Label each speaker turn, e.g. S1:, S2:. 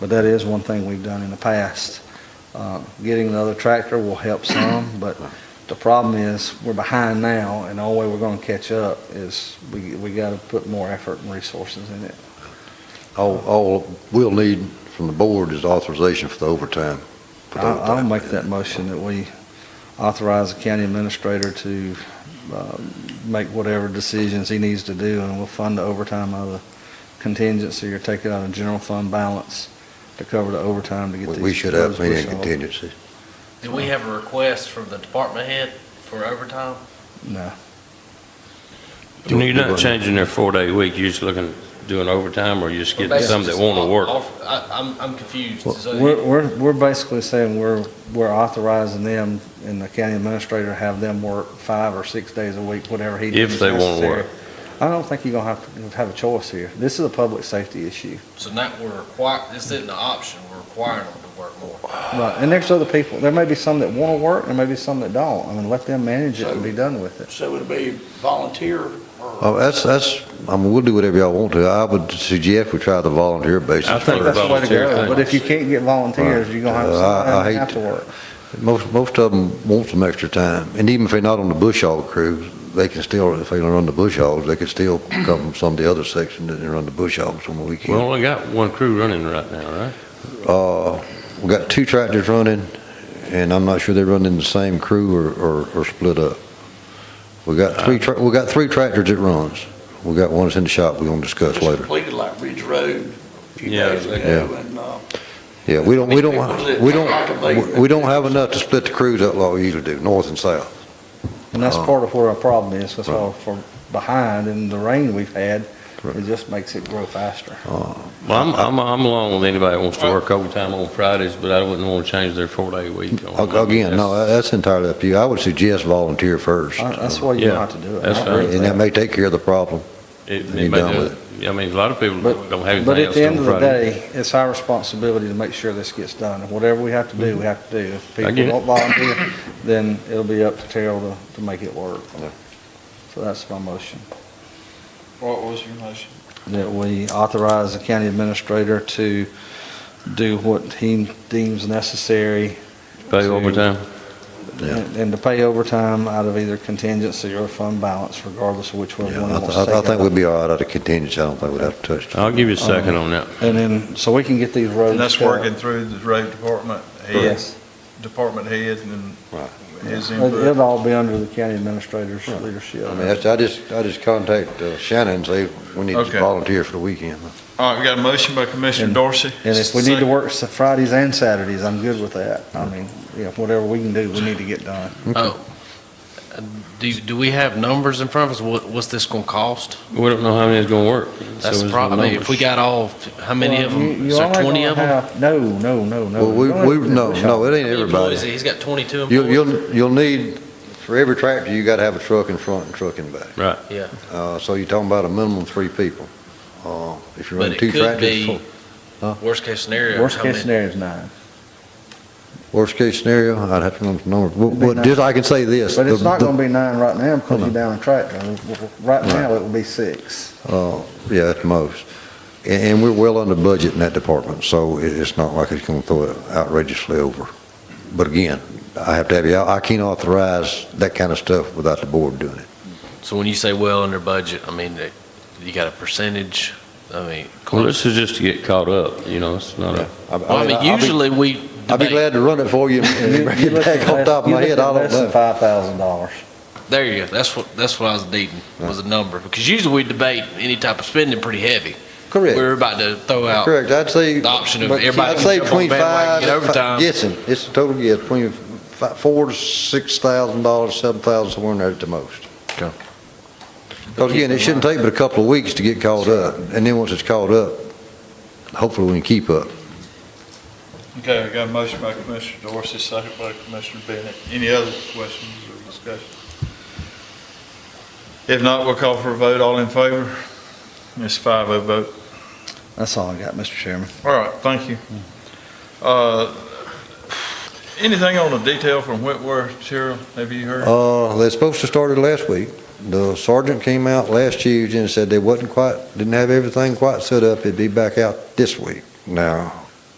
S1: But that is one thing we've done in the past. Uh, Getting another tractor will help some, but the problem is, we're behind now, and the only way we're gonna catch up is we, we gotta put more effort and resources in it.
S2: All, all we'll need from the board is authorization for the overtime. for the
S1: I'll, I'll
S2: overtime.
S1: make that motion that we authorize the county administrator to, uh, make whatever decisions he needs to do, and we'll fund the overtime out of the contingency or take it out of general fund balance to cover the overtime to get
S2: We-
S1: these.
S2: We should have
S1: roads
S2: plenty of
S1: pushed off.
S2: contingency.
S3: Did we have a request from the department head for overtime?
S1: No.
S4: And You're not changing their four-day week, you're just looking, doing overtime, or you're just getting some that want to work?
S3: I, I'm, I'm confused.
S1: We're,
S3: So
S1: we're, we're basically saying we're, we're authorizing them and the county administrator have them work five or six days a week, whatever he deems
S4: If they wanna
S1: necessary.
S4: work.
S1: I don't think you're gonna have, to have a choice here. This is a public safety issue.
S3: so now we're required, this isn't an option, we're requiring them to work more.
S1: Right, and there's other people, there may be some that wanna work, there may be some that don't. I mean, let them manage it and be done with it.
S5: So it'd be volunteer or?
S2: Oh, that's, that's, I mean, we'll do whatever y'all want to. I would suggest we try the volunteer
S4: I
S2: basis
S4: think
S2: first.
S1: That's the way to
S4: volunteer
S1: go,
S4: thing.
S1: but if you can't get volunteers, you're gonna have
S2: Right. Uh, I-
S1: some
S2: I
S1: that
S2: hate
S1: have to
S2: to-
S1: work.
S2: Most, most of them want some extra time, and even if they're not on the bush hog crew, they can still, if they don't run the bush hogs, they can still come from some of the other section and run the bush hogs on the
S4: We
S2: weekend.
S4: only got one crew running right now, right?
S2: Uh, we got two tractors running, and I'm not sure they're running the same crew or, or, or split up. We got three, tra- we got three tractors that runs. We got one that's in the shop we're gonna discuss
S5: Just
S2: later.
S5: Completed like Ridge Road a few
S4: Yeah,
S5: days
S4: they-
S5: ago and, uh,
S2: Yeah, we don't, we don't, we don't, we don't have enough to split the crews up like we usually do, north and south.
S1: And that's
S2: Uh-huh.
S1: part of where our problem is, that's why
S2: Right.
S1: we're behind and the rain we've had, it
S2: Right.
S1: just makes it grow faster.
S2: Uh,
S4: Well, I'm, I'm, I'm along with anybody that wants to work overtime on Fridays, but I wouldn't want to change their four-day week. on
S2: Ag- Again, no,
S4: Mondays.
S2: that- that's entirely up to you. I would suggest volunteer first.
S1: Uh, That's the way you
S4: Yeah,
S1: have to do it. I
S4: that's
S1: agree
S4: fine.
S1: with
S2: And that may take care of the problem.
S4: It-
S2: Be
S4: it may
S2: done
S4: do-
S2: with
S4: I mean, a lot of people
S1: But-
S4: don't have
S1: But
S4: anything
S1: at
S4: else
S1: the end
S4: on
S1: of the
S4: Friday.
S1: day, it's our responsibility to make sure this gets done. And whatever we have to do, we have to do. If
S4: I
S1: people
S4: get it.
S1: don't volunteer, then it'll be up to Terrell to, to make it work. So that's my motion,
S6: What was your motion?
S1: that we authorize the county administrator to do what he deems necessary
S4: Pay overtime?
S2: Yeah.
S1: and and to pay overtime out of either contingency or fund balance, regardless of which one
S2: Yeah,
S1: one
S2: I
S1: wants to
S2: th- I
S1: take
S2: th- I think
S1: out.
S2: we'd be all right out of contingency. I don't think we'd have to touch. it.
S4: I'll give you a second on that.
S1: And then, so we can get these roads.
S6: And that's
S1: cut.
S6: working through the road department head,
S1: Yes.
S6: department head and
S2: Right.
S6: his
S1: It- It'll
S6: input.
S1: all be under the county administrator's
S2: Right.
S1: leadership.
S2: I mean, that's- I just, I just contact uh, Shannon and say, we need
S6: Okay.
S2: to volunteer for the weekend.
S6: All right, we got a motion by Commissioner
S1: And-
S6: Dorsey.
S1: And if we need to
S6: Second.
S1: work s- Fridays and Saturdays, I'm good with that. I mean, yeah, whatever we can do, we need to get done.
S3: Oh, Uh, do, you- do we have numbers in front of us? What, what's this gonna cost?
S4: We don't know how many is going to work. so
S3: That's
S4: it's
S3: the problem. I mean, If
S4: numbers.
S3: we got all, how many of
S1: Well, you-
S3: them? Is
S1: you
S3: there
S1: only
S3: twenty
S1: gonna
S3: of them?
S1: have- No, no, no, no.
S2: Well, we,
S1: You only
S2: we,
S1: have to
S2: no,
S1: push
S2: no,
S1: off.
S2: it ain't
S3: Employees,
S2: everybody.
S3: He's got twenty-two
S2: You'll,
S3: employees.
S2: you'll, you'll need, for every tractor, you gotta have a truck in front and truck in back.
S4: Right.
S3: Yeah,
S2: Uh, so you're talking about a minimum of three people. Uh, if you're
S3: But
S2: running
S3: it
S2: two
S3: could
S2: tractors,
S3: be-
S2: four-
S3: worst case scenario.
S1: Worst
S3: how
S1: case
S3: many-
S1: scenario is nine.
S2: worst case scenario, I'd have to run some numbers. But,
S1: It'd be
S2: but
S1: nice.
S2: just, I can say this.
S1: But it's
S2: the-
S1: not
S2: the-
S1: gonna be nine right now because you're down a tractor. Right
S2: Right.
S1: now, it will be six.
S2: Uh, yeah, at the most. And, and we're well under budget in that department, so it, it's not like it's gonna throw it outrageously over. But again, I have to have you, I I can't authorize that kind of stuff without the board doing it.
S3: So when you say well under budget, I mean, that- you got a percentage, I mean.
S4: Well, this is just to get caught up, you know, it's not a,
S3: Well, I mean,
S2: I'll be-
S3: usually we
S2: I'd be
S3: debate.
S2: glad to run it for you
S1: You-
S2: and bring
S1: you
S2: it
S1: look at
S2: back off
S1: less-
S2: top of
S1: you
S2: my
S1: look
S2: head,
S1: at
S2: I don't
S1: Less than
S2: know.
S1: five thousand dollars.
S3: There you go. That's what, that's what I was needing, was a number. Because usually we debate any type of spending pretty heavy.
S2: Correct,
S3: We're about to throw out
S2: correct, I'd say.
S3: the option of
S2: but I'd
S3: everybody
S2: say
S3: can jump on
S2: between five,
S3: bandwagon, get
S2: and fi-
S3: overtime.
S2: guessing, it's a total guess, between fi- four to six thousand dollars, seven thousand, somewhere in there at the most. Because again, it shouldn't take but a couple of weeks to get caught up, and then once it's caught up, hopefully we can keep up.
S6: Okay, we got a motion by Commissioner Dorsey, second by Commissioner Bennett. Any other questions or discussion? If not, we'll call for a vote. All in favor? It's five oh vote.
S1: That's all I got, Mr. Chairman.
S6: All right, thank you. Uh, Anything on the detail from Whitworth, Cheryl? Have you heard?
S2: Uh, they're supposed to start it last week. The sergeant came out last Tuesday and said they wasn't quite, didn't have everything quite set up, it'd be back out this week. Now,